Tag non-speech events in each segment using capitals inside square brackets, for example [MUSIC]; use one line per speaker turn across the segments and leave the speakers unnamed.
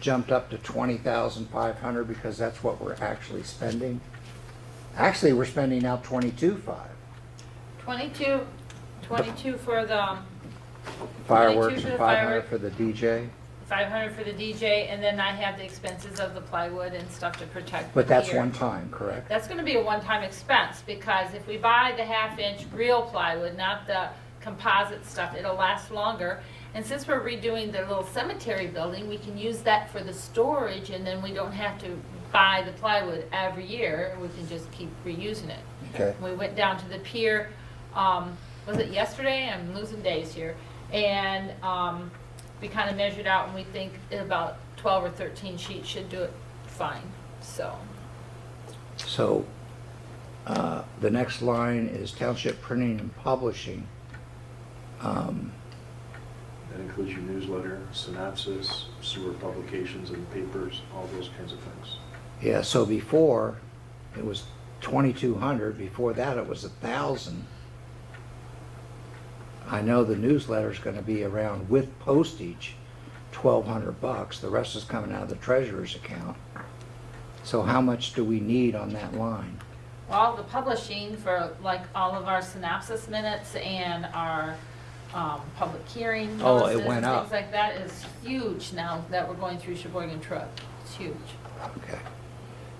jumped up to twenty thousand five hundred because that's what we're actually spending. Actually, we're spending now twenty-two five
Twenty-two, twenty-two for the um,
fireworks
22 for
and
the
five hundred
firework.
for the DJ.
five hundred for the DJ, and then I have the expenses of the plywood and stuff to protect.
But that's
here.
one time, correct?
That's gonna be a one-time expense, because if we buy the half-inch real plywood, not the composite stuff, it'll last longer. And since we're redoing the little cemetery building, we can use that for the storage, and then we don't have to buy the plywood every year, we can just keep reusing it.
Okay.
We went down to the pier, um, was it yesterday? I'm losing days here. And, um, we kind of measured out and we think about twelve or thirteen sheets should do it fine, so.
So, uh, the next line is township printing and publishing. Um,
That includes your newsletter, synopsis, sewer publications and papers, all those kinds of things.
Yeah, so before, it was twenty-two hundred, before that it was a thousand. I know the newsletter's gonna be around with postage, twelve hundred bucks, the rest is coming out of the treasurer's account. So how much do we need on that line?
All the publishing for like all of our synopsis minutes and our, um, public hearing
Oh, it
notices and
went up.
things like that is huge now that we're going through Sheboygan Truck. It's huge.
Okay,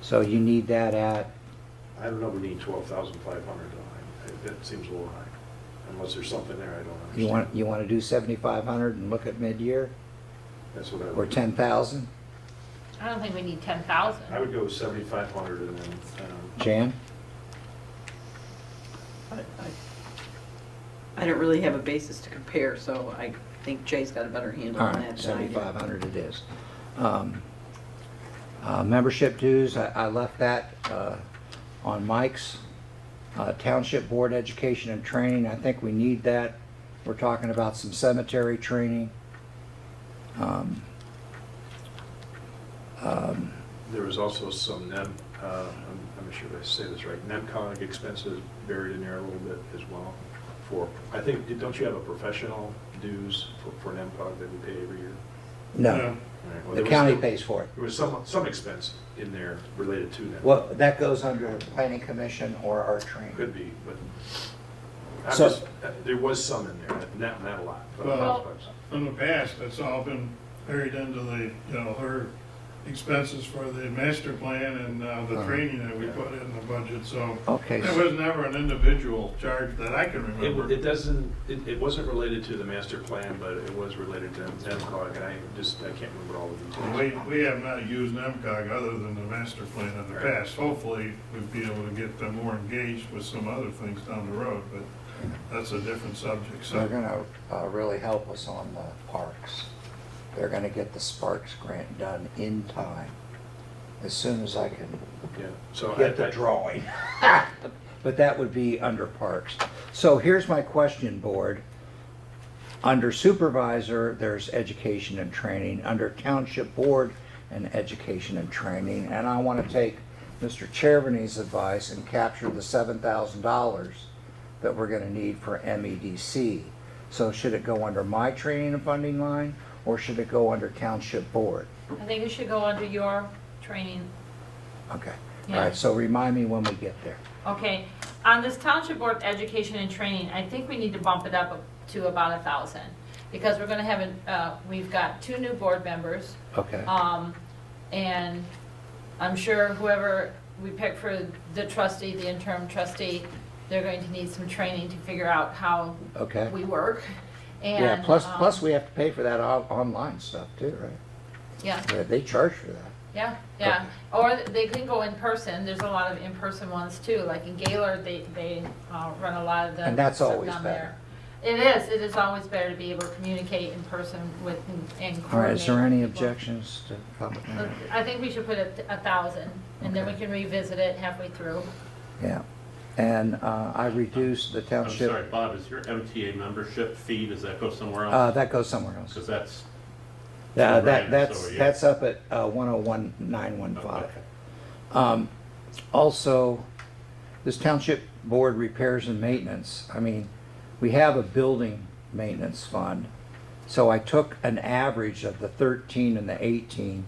so you need that at,
I don't know, we need twelve thousand five hundred, that seems a little high, unless there's something there I don't understand.
you want, you wanna do seventy-five hundred and look at mid-year,
That's what I
or
would,
ten thousand?
I don't think we need ten thousand.
I would go seventy-five hundred and then, um,
Jan?
I- I I don't really have a basis to compare, so I think Jay's got a better handle
All
on that
right,
than I do.
seventy-five hundred it is. Um, uh, Membership dues, I I left that uh, on Mike's. Uh, Township Board Education and Training, I think we need that. We're talking about some cemetery training. Um, um,
there was also some NEM, uh, I'm, I'm not sure if I say this right, NEMCOG expenses buried in there a little bit as well. For, I think, don't you have a professional dues for, for NEMCOG that we pay every year?
No,
All right, well,
the
there was
county
some-
pays for it.
There was some, some expense in there related to that.
Well, that goes under Planning Commission or our training.
Could be, but I'm
So-
just, uh, there was some in there, not, not a lot. but-
Well-
In the past, it's all been buried into the, you know, her expenses for the master plan and uh, the
Uh-huh.
training that we put in the budget, so.
Okay,
There
so-
was never an individual charge that I can
It, it
remember.
doesn't, it, it wasn't related to the master plan, but it was related to NEMCOG, and I just, I can't remember all the
And We,
details.
we have not used NEMCOG other than the master plan in the
Right.
past. Hopefully, we'd be able to get them more engaged with some other things down the road, but that's a different subject, so.
They're gonna uh, really help us on the parks. They're gonna get the Sparks grant done in time, as soon as I can
Yeah, so I,
get the
I, [LAUGHS]
drawing. But that would be under parks. So here's my question, board. Under supervisor, there's education and training, under township board and education and training. And I wanna take Mr. Chervany's advice and capture the seven thousand dollars that we're gonna need for MEDC. So should it go under my training and funding line, or should it go under township board?
I think we should go under your training
Okay, all
Yeah.
right, so remind me when we get there.
Okay, on this Township Board of Education and Training, I think we need to bump it up to about a thousand, because we're gonna have, an- uh, we've got two new board members,
Okay.
um, and I'm sure whoever we pick for the trustee, the interim trustee, they're going to need some training to figure out how
Okay.
we work, and.
Yeah, plus,
um,
plus we have to pay for that on- online stuff too, right?
Yeah,
Yeah, They charge for that.
yeah, yeah, or they can go in person, there's a lot of in-person ones too, like in Gaylord, they, they, uh, run a lot of the.
And that's
stuff
always
down there. It is, it is always better to be able to communicate in person with, and coordinate.
All right, is there any
with people.
objections to public
Uh,
hearing?
I think we should put a, a thousand, and then we
Okay.
can revisit it halfway through.
Yeah, and uh, I reduced the
I'm sorry,
township,
Bob, is your MTA membership fee, does that go somewhere
uh,
else?
that goes somewhere else.
Because that's,
Uh,
Right, so,
That, that's,
yeah.
that's up at uh,
okay.
101915. Um, Also, this township board repairs and maintenance, I mean, we have a building maintenance fund. So I took an average of the 13 and the 18